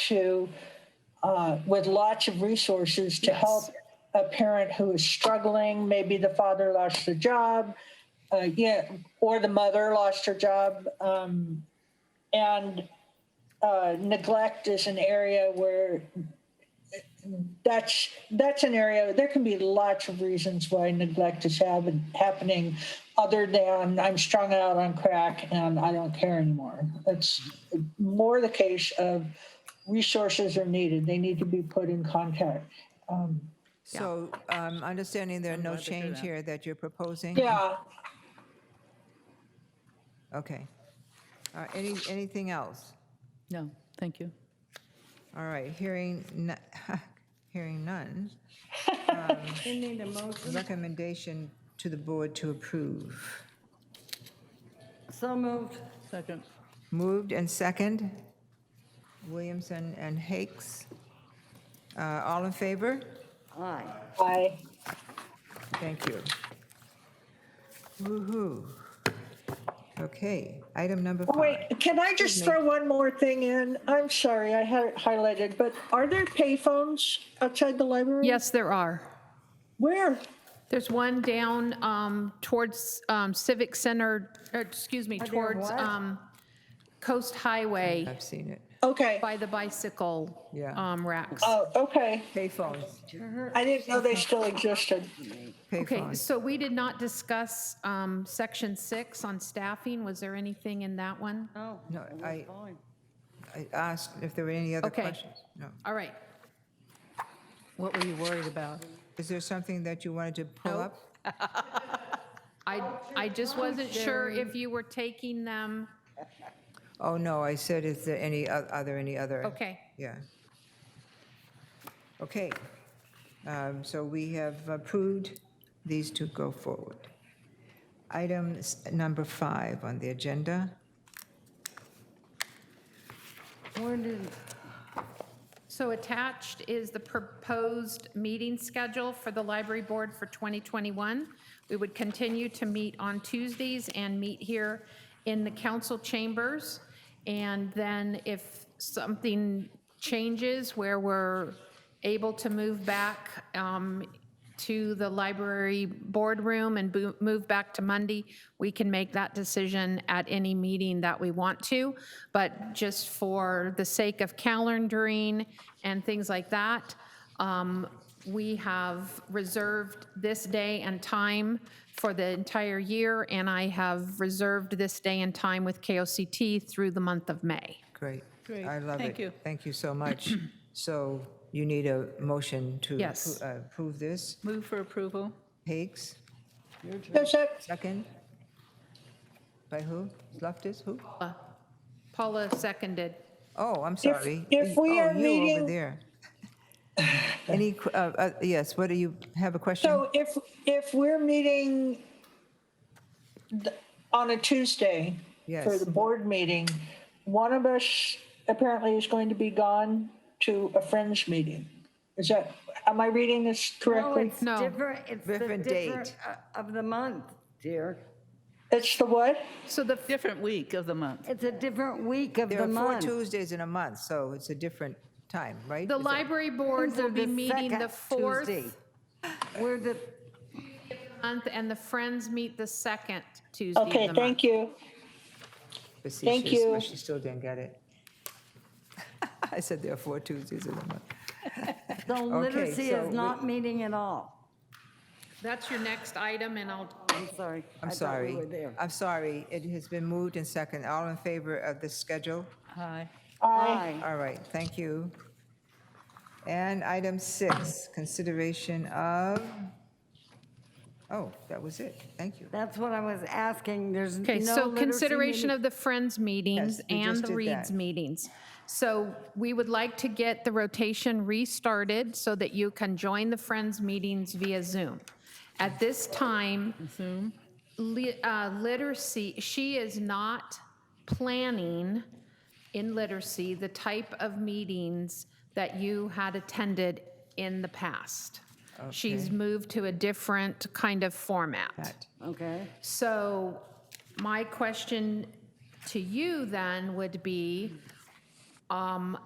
to, uh, with lots of resources to help a parent who is struggling. Maybe the father lost the job, uh, yeah, or the mother lost her job. Um, and uh, neglect is an area where that's that's an area there can be lots of reasons why neglect is happen, happening other than i'm strung out on crack and i don't care anymore it's more the case of resources are needed they need to be put in contact So um, understanding there are no change here that you're proposing? yeah Okay. All right, Any Anything else? No, thank you. All right, hearing, no- hearing none. um, Recommendation to the board to approve. So moved. Second. Moved and second. Williamson and Hakes. Uh, All in favor? Aye. i Thank you. Woo-hoo. Okay, item number Oh, five. oh, wait can i just throw one more thing in i'm sorry i had it highlighted but are there payphones outside the library Yes, there are. where There's one down um, towards um, Civic Center, or excuse me, towards um, Coast Highway I've seen it. okay by the bicycle Yeah. um, racks. oh okay Payphones, i didn't know they still existed Okay, payphones. so we did not discuss um, Section 6 on staffing. Was there anything in that one? Oh, No, I- fine. I asked if there were any other Okay. questions. No. All right. What were you worried about? Is there something that you wanted to pull Nope. up? I, I just wasn't sure if you were taking them. Oh, no, I said, is there any, oth- are there any other? Okay. Yeah. Okay, um, so we have approved these to go forward. Item s- number five on the agenda. Where did, So attached is the proposed meeting schedule for the library board for 2021. We would continue to meet on Tuesdays and meet here in the council chambers. And then if something changes where we're able to move back um, to the library boardroom and bo- move back to Monday, we can make that decision at any meeting that we want to. But just for the sake of calendaring and things like that, um, we have reserved this day and time for the entire year, and I have reserved this day and time with KOCT through the month of May. Great. Great. I love it. Thank you. Thank you so much. So you need a motion to Yes. appro- uh, approve this. Move for approval? Hakes, does that second? By who? Loftus, who? Paula seconded. Oh, I'm sorry. if we Oh, are you over meeting- there. Any, qu- uh, uh, yes, what do you, have a question? So if, if we're meeting th- on a Tuesday for Yes. the board meeting, one of us apparently is going to be gone to a friends meeting. Is that, am I reading this no, correctly? Oh, it's No. different, it's the Different different date. uh, of the month, dear. It's the what? So the Different week of the month. It's a different week of There the are four month. Tuesdays in a month, so it's a different time, right? The Is that- library board These are will be the meeting the second 4th Tuesday. We're the, month, and the Friends meet the second Tuesday of the Okay, month. thank you. Facetious, but you. She still didn't get it. I said there are four Tuesdays in a month. the literacy so is we- not meeting at all. That's your next item, and I'll, I'm sorry. I I'm thought we sorry. were there. I'm sorry. It has been moved and second. All in favor of the schedule? Aye. Aye. Aye. All right, thank you. And item six, consideration of, oh, that was it. Thank you. That's what I was asking. There's no okay, so literacy consideration meeting. of the Friends meetings Yes, we and just the did Reeds that. meetings. So we would like to get the rotation restarted so that you can join the Friends meetings via Zoom. At this time, Zoom? li- uh, literacy, she is not planning in literacy the type of meetings that you had attended in the past. She's moved to a different kind of format. That. Okay. So my question to you then would be, um,